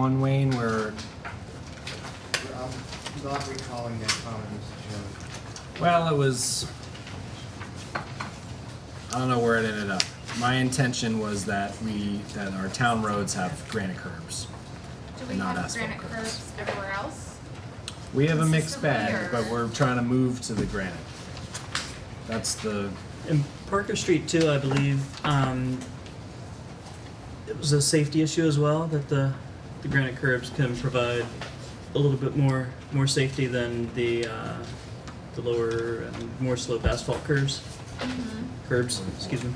one, Wayne, where, I'm not recalling that comment, Mr. Chairman. well, it was, I don't know where it ended up. My intention was that we, that our town roads have granite curbs. Do we and not have asphalt granite curbs. curbs everywhere else? We have a mixed Consistently, bag, or- but we're trying to move to the granite. That's the, And Parker Street too, I believe, um, it was a safety issue as well, that the, the granite curbs can provide a little bit more, more safety than the, uh, the lower and more slope asphalt curves, curbs, excuse me.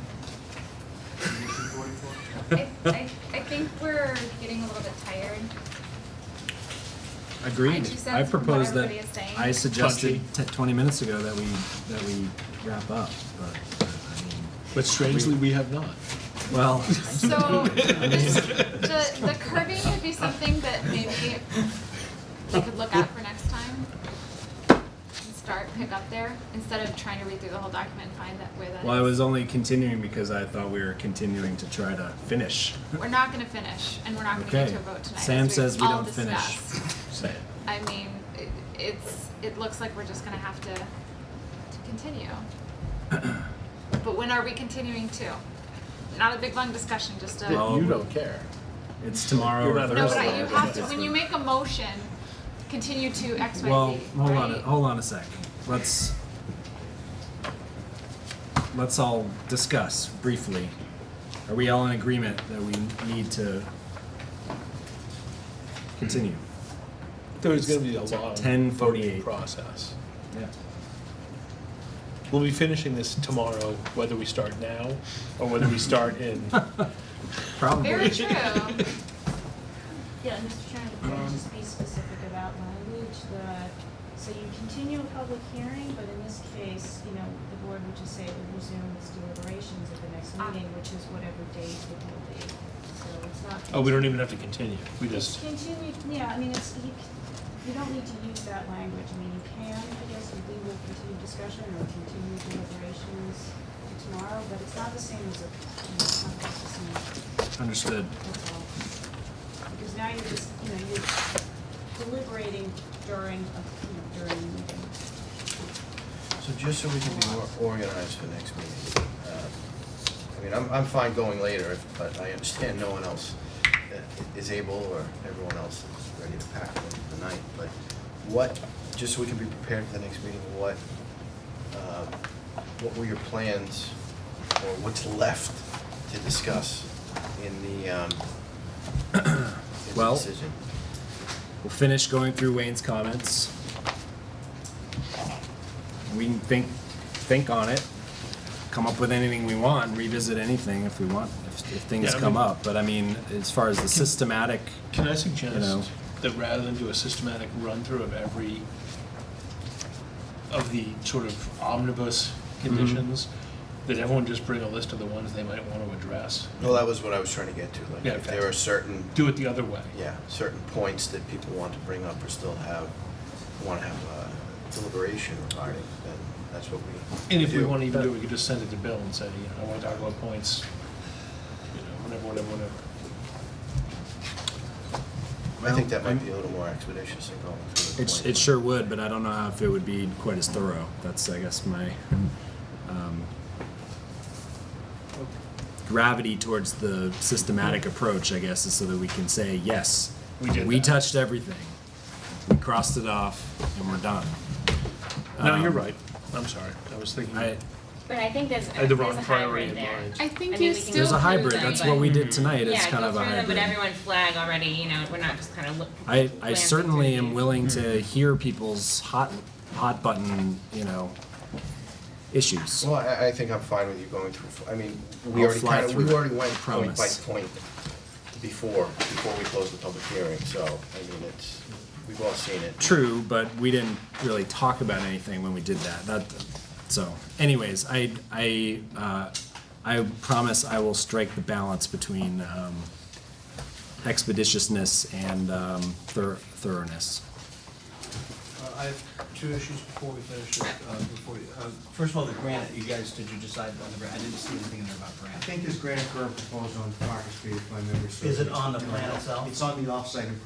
Issue 44? I, I, I think we're getting a little bit tired. agreed. two cents I from what proposed that, everybody is saying. I suggested te- twenty minutes ago that we, that we wrap up, but, I mean, But strangely, we have not. well, So this, the, the curbing would be something that maybe we could look at for next time. And Start, pick up there, instead of trying to read through the whole document and find that where that well, I is. was only continuing because I thought we were continuing to try to finish. We're not gonna finish and we're not gonna get Okay. to a vote tonight. Sam as says we all don't finish. discussed. Say it. I mean, it, it's, it looks like we're just gonna have to, to continue. But when are we continuing to? Not a big long discussion, just a, no, Well, That you don't care. It's tomorrow You're or not Thursday. there's but I- a- you have to, when you make a motion, continue to X, Y, Well, Z, hold on, a- right? hold on a sec. Let's, let's all discuss briefly. Are we all in agreement that we need to continue? There's gonna be a long. 10:48. Process. Yeah. We'll be finishing this tomorrow, whether we start now or whether we start in. Very Probably. true. Yeah, Mr. Chairman, could you just be specific about language, the, so you continue a public hearing, but in this case, you know, the board would just say it would resume its deliberations at the next Ah. meeting, which is whatever date it will be. So it's not. Oh, we don't even have to continue. We just, Continue, yeah, I mean, it's, you, c- you don't need to use that language, I mean, you can, I guess, if we will continue discussion or continue deliberations tomorrow, but it's not the same as a, you know, it's not the same. Understood. That's all. Because now you're just, you know, you're deliberating during, a- you know, during the meeting. So just so we can be more organized for next meeting, uh, I mean, I'm, I'm fine going later, if- but I understand no one else uh, is able, or everyone else is ready to pack them for the night, but what, just so we can be prepared for the next meeting, what, um, what were your plans, or what's left to discuss in the, um, in the Well- decision? We'll finish going through Wayne's comments. We can think, think on it, come up with anything we want, revisit anything if we want, if, if things Yeah, I come mean- up. But I mean, as far as the systematic, can You I know. suggest that rather than do a systematic run-through of every, of the sort of omnibus conditions, that everyone just bring a list of the ones they might want to address? Well, that was what I was trying to get to, like, Yeah, if okay. there are certain Do it the other way. yeah, certain points that people want to bring up or still have, want to have uh, deliberation regarding, then that's what we And if we do. want to even do it, we could just send it to Bill and say, you know, I want to talk about points, you know, whatever, whatever, whatever. I think that might be a little more expeditious than going through. the It, it point. sure would, but I don't know how if it would be quite as thorough. That's, I guess, my um, gravity towards the systematic approach, I guess, is so that we can say, yes, We did that." touched everything. We crossed it off and we're done. No, you're Um, right. I'm sorry. I was thinking, I, But I think there's, I had the there's wrong a priority hybrid in there. mind. I think I you mean, we can still. there's a go through hybrid. them, That's but- what we Mm-hmm. did tonight. It's Yeah, kind go of a through them, but hybrid. everyone flag already, you know, we're not just kind of look. I, I glancing certainly through am these. willing Mm-hmm. to hear people's hot, hot button, you know, issues. Well, I, I think I'm fine with you going through, I mean, I'll we already fly kind of, through we it, already went I point by promise. point before, before we closed the public hearing, so, I mean, it's, we've all seen it. True, but we didn't really talk about anything when we did that. That, so, anyways, I, I, uh, I promise I will strike the balance between um, expeditiousness and um, thor- thoroughness. Uh, I I have two issues before we finish it, uh, before you, uh, first of all, the granite, you guys, did you decide on the grant? I didn't see anything in there about I granite. think there's granite curb proposed on Parker Street, if my memory serves. Is it on the plan itself? It's on the off-site improvement